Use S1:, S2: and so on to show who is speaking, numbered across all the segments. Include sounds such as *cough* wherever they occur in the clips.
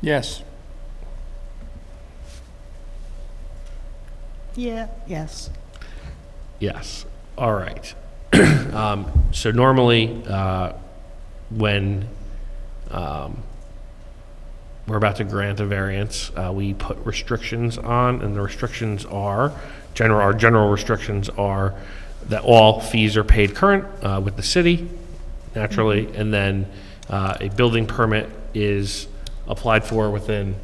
S1: Yes.
S2: Yeah, yes.
S3: Yes, all right. *clears throat* Um, So normally, uh, when um, we're about to grant a variance, uh, we put restrictions on, and the restrictions are, general, our general restrictions are that all fees are paid current uh, with the city, naturally,
S4: Mm-hmm.
S3: and then uh, a building permit is applied for within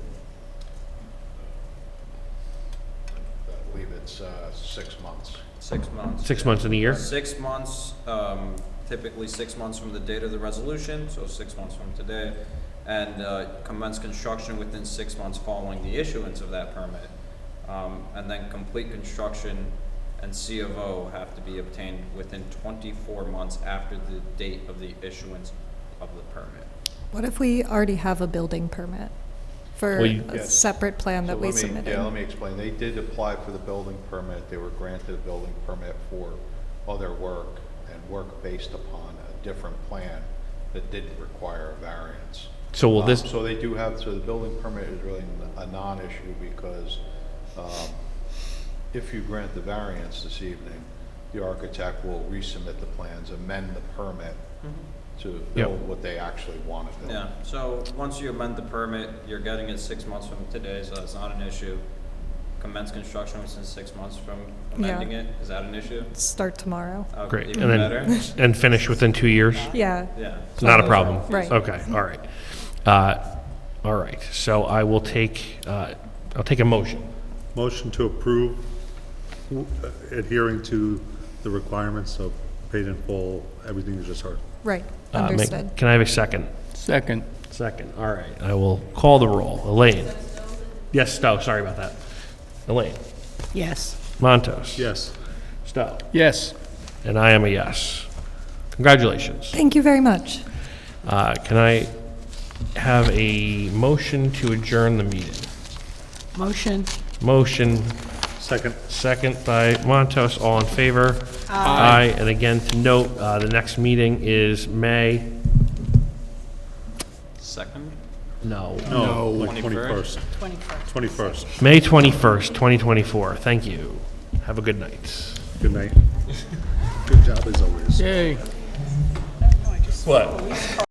S5: I believe it's uh, six months.
S4: Six months.
S3: six months in a year.
S4: Six months, um, typically six months from the date of the resolution, so six months from today, and uh, commence construction within six months following the issuance of that permit. Um, And then complete construction and C of O have to be obtained within twenty-four months after the date of the issuance of the permit.
S6: What if we already have a building permit for
S3: Well, you-
S6: a separate plan
S5: So
S6: that we
S5: let me- Yeah, let
S6: submitted?
S5: me explain. They did apply for the building permit. They were granted a building permit for other work and work based upon a different plan that didn't require a variance.
S3: So will
S5: Um,
S3: this,
S5: So they do have, so the building permit is really n- a non-issue because um, if you grant the variance this evening, the architect will resubmit the plans, amend the permit
S6: Mm-hmm.
S5: to build what they actually want to build.
S4: Yeah, so once you amend the permit, you're getting it six months from today, so that's not an issue. Commence construction within six months from amending
S6: Yeah.
S4: it, is that an issue?
S6: Start tomorrow?
S4: Uh,
S3: great, and
S4: Even better,
S3: then, *laughs* and finish within two years?
S6: Yeah,
S4: yeah.
S3: Not a problem.
S6: Right.
S3: Okay, all right. Uh, All right, so I will take, uh, I'll take a motion.
S7: Motion to approve w- adhering to the requirements of paid in full, everything you just heard.
S6: right,
S3: Uh, make-
S6: understood.
S3: Can I have a second?
S1: Second.
S3: Second, all right. I will call the roll. Elaine? Yes, Stowe, sorry about that. Elaine?
S2: Yes.
S3: Montos?
S7: Yes.
S3: Stowe?
S1: Yes.
S3: And I am a yes. Congratulations.
S6: Thank you very much.
S3: Uh, Can I have a motion to adjourn the meeting?
S2: Motion.
S3: Motion
S7: Second.
S3: Second by Montos, all in favor? Aye. And again, to note, uh, the next meeting is May,
S4: Second?
S3: no,
S7: No. Like
S4: 21st.
S7: 21st. 21st.
S3: May 21st, 2024. Thank you. Have a good night.
S7: Good night. Good job as always.
S1: Yay.
S3: What?